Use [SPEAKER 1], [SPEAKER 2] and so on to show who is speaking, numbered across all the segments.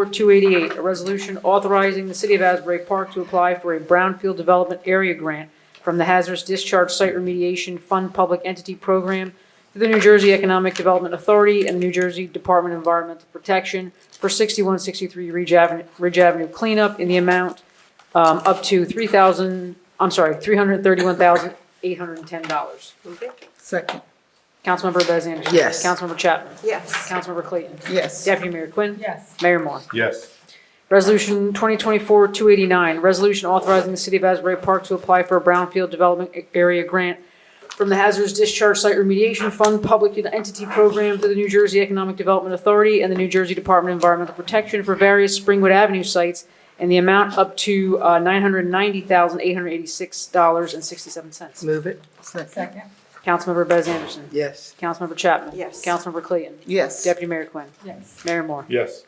[SPEAKER 1] 24-288, a resolution authorizing the City of Asbury Park to apply for a brownfield development area grant from the Hazardous Discharge Site Remediation Fund Public Entity Program to the New Jersey Economic Development Authority and the New Jersey Department of Environmental Protection for 6163 Ridge Avenue Ridge Avenue cleanup in the amount um, up to 3,000, I'm sorry, $331,810.
[SPEAKER 2] Move it.
[SPEAKER 3] Second.
[SPEAKER 1] Councilmember Bez Anderson.
[SPEAKER 3] Yes.
[SPEAKER 1] Councilmember Chapman.
[SPEAKER 2] Yes.
[SPEAKER 1] Councilmember Clayton.
[SPEAKER 3] Yes.
[SPEAKER 1] Deputy Mayor Quinn.
[SPEAKER 4] yes,
[SPEAKER 1] Mayor Moore.
[SPEAKER 5] yes,
[SPEAKER 1] Resolution 2024-289, resolution authorizing the City of Asbury Park to apply for a brownfield development area grant from the Hazardous Discharge Site Remediation Fund Public Entity Program to the New Jersey Economic Development Authority and the New Jersey Department of Environmental Protection for various Springwood Avenue sites and the amount up to uh, $990,886.67.
[SPEAKER 3] Move it. Second.
[SPEAKER 4] second,
[SPEAKER 1] Councilmember Bez Anderson.
[SPEAKER 3] Yes.
[SPEAKER 1] Councilmember Chapman.
[SPEAKER 2] Yes.
[SPEAKER 1] Councilmember Clayton.
[SPEAKER 3] Yes.
[SPEAKER 1] Deputy Mayor Quinn.
[SPEAKER 4] yes,
[SPEAKER 1] Mayor Moore.
[SPEAKER 5] yes,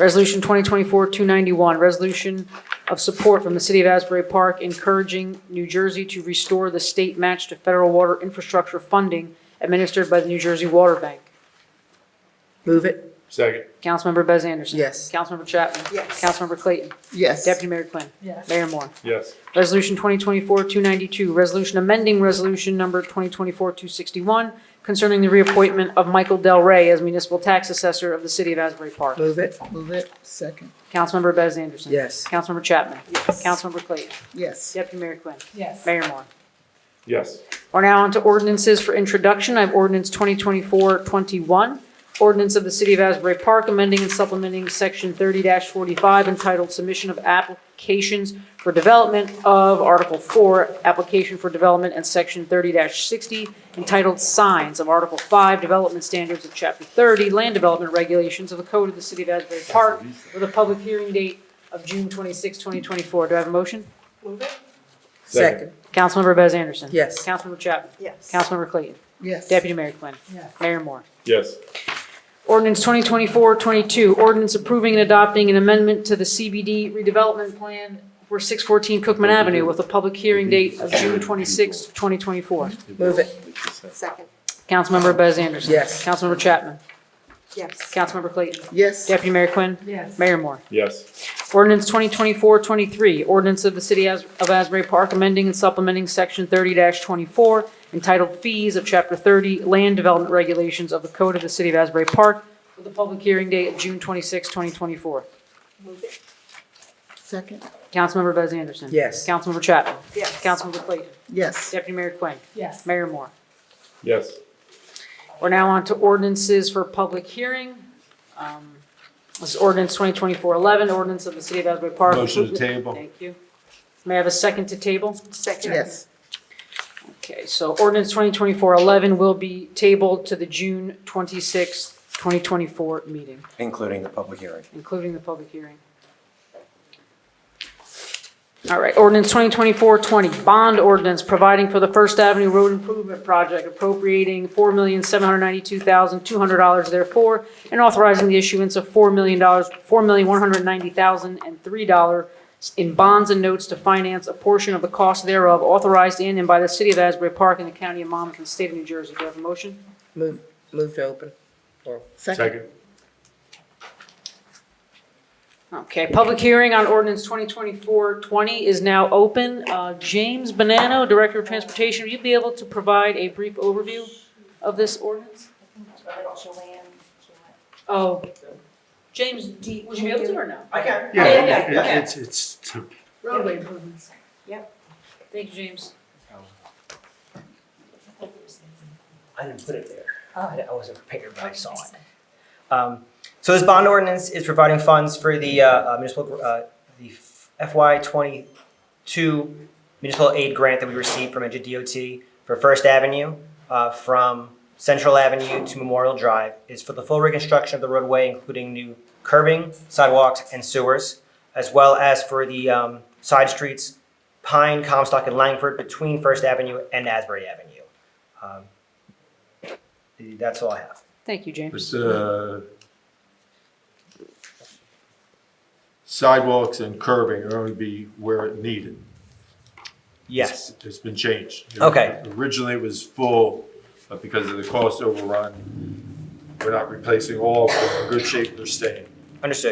[SPEAKER 1] Resolution 2024-291, resolution of support from the City of Asbury Park encouraging New Jersey to restore the state match to federal water infrastructure funding administered by the New Jersey Water Bank.
[SPEAKER 3] Move it.
[SPEAKER 5] second,
[SPEAKER 1] Councilmember Bez Anderson.
[SPEAKER 3] Yes.
[SPEAKER 1] Councilmember Chapman.
[SPEAKER 2] Yes.
[SPEAKER 1] Councilmember Clayton.
[SPEAKER 3] Yes.
[SPEAKER 1] Deputy Mayor Quinn.
[SPEAKER 4] yes,
[SPEAKER 1] Mayor Moore.
[SPEAKER 5] yes,
[SPEAKER 1] Resolution 2024-292, resolution amending resolution number 2024-261 concerning the reappointment of Michael Del Rey as municipal tax assessor of the City of Asbury Park.
[SPEAKER 3] Move it. Move it. Second.
[SPEAKER 1] Councilmember Bez Anderson.
[SPEAKER 3] Yes.
[SPEAKER 1] Councilmember Chapman.
[SPEAKER 2] Yes.
[SPEAKER 1] Councilmember Clayton.
[SPEAKER 3] Yes.
[SPEAKER 1] Deputy Mayor Quinn.
[SPEAKER 4] yes,
[SPEAKER 1] Mayor Moore.
[SPEAKER 5] yes,
[SPEAKER 1] We're now on to ordinances for introduction. I have ordinance 2024-21, ordinance of the City of Asbury Park amending and supplementing Section 30-45 entitled Submission of Applications for Development of Article 4, Application for Development, and Section 30-60 entitled Signs of Article 5, Development Standards of Chapter 30, Land Development Regulations of the Code of the City of Asbury Park with a public hearing date of June 26, 2024. Do I have a motion?
[SPEAKER 2] Move it.
[SPEAKER 3] Second.
[SPEAKER 1] Councilmember Bez Anderson.
[SPEAKER 3] Yes.
[SPEAKER 1] Councilmember Chapman.
[SPEAKER 2] Yes.
[SPEAKER 1] Councilmember Clayton.
[SPEAKER 3] Yes.
[SPEAKER 1] Deputy Mayor Quinn.
[SPEAKER 4] yes,
[SPEAKER 1] Mayor Moore.
[SPEAKER 5] yes,
[SPEAKER 1] Ordinance 2024-22, ordinance approving and adopting an amendment to the CBD redevelopment plan for 614 Cookman Avenue with a public hearing date of June 26, 2024.
[SPEAKER 3] Move it.
[SPEAKER 2] Second.
[SPEAKER 1] Councilmember Bez Anderson.
[SPEAKER 3] Yes.
[SPEAKER 1] Councilmember Chapman.
[SPEAKER 2] Yes.
[SPEAKER 1] Councilmember Clayton.
[SPEAKER 3] Yes.
[SPEAKER 1] Deputy Mayor Quinn.
[SPEAKER 4] yes,
[SPEAKER 1] Mayor Moore.
[SPEAKER 5] yes,
[SPEAKER 1] Ordinance 2024-23, ordinance of the City As- of Asbury Park amending and supplementing Section 30-24 entitled Fees of Chapter 30 Land Development Regulations of the Code of the City of Asbury Park with a public hearing date of June 26, 2024.
[SPEAKER 2] Move it.
[SPEAKER 3] Second.
[SPEAKER 1] Councilmember Bez Anderson.
[SPEAKER 3] Yes.
[SPEAKER 1] Councilmember Chapman.
[SPEAKER 2] Yes.
[SPEAKER 1] Councilmember Clayton.
[SPEAKER 3] Yes.
[SPEAKER 1] Deputy Mayor Quinn.
[SPEAKER 4] yes,
[SPEAKER 1] Mayor Moore.
[SPEAKER 5] yes,
[SPEAKER 1] We're now on to ordinances for public hearing. Um, This is ordinance 2024-11, ordinance of the City of Asbury Park.
[SPEAKER 5] Motion to table.
[SPEAKER 1] Thank you. May I have a second to table?
[SPEAKER 2] Second.
[SPEAKER 3] Yes.
[SPEAKER 1] Okay, so ordinance 2024-11 will be tabled to the June 26, 2024 meeting,
[SPEAKER 6] including the public hearing.
[SPEAKER 1] including the public hearing. All right, ordinance 2024-20, bond ordinance providing for the First Avenue Road Improvement Project appropriating $4,792,200 therefore, and authorizing the issuance of $4 million, $4,190,003 in bonds and notes to finance a portion of the cost thereof authorized in and by the City of Asbury Park and the County of Monmouth and State of New Jersey. Do I have a motion?
[SPEAKER 3] Move, move to open. Or
[SPEAKER 5] second,
[SPEAKER 1] Okay, public hearing on ordinance 2024-20 is now open. Uh, James Bonanno, Director of Transportation, will you be able to provide a brief overview of this ordinance? Oh, James, do you- would you be able to or no?
[SPEAKER 7] I can.
[SPEAKER 1] Oh, Yeah, yeah, yeah,
[SPEAKER 7] it- It's, it's, to-
[SPEAKER 1] Roadway improvements.
[SPEAKER 2] Yep.
[SPEAKER 1] Thank you, James.
[SPEAKER 7] I didn't put it there. I I wasn't prepared, but I saw it. Um, So this bond ordinance is providing funds for the uh, uh, municipal, uh, the FY twenty-two municipal aid grant that we received from NJDOT for First Avenue, uh, from Central Avenue to Memorial Drive. It's for the full reconstruction of the roadway, including new curbing, sidewalks, and sewers, as well as for the um, side streets, Pine, Comstock, and Langford between First Avenue and Asbury Avenue. Um, that's all I have.
[SPEAKER 1] Thank you, James.
[SPEAKER 5] it's, uh, sidewalks and curbing are only be where it needed.
[SPEAKER 7] Yes.
[SPEAKER 5] It's- It's been changed.
[SPEAKER 7] Okay.
[SPEAKER 5] Originally it was full, but because of the cost overrun, we're not replacing all, but in good shape, they're staying.
[SPEAKER 7] Understood.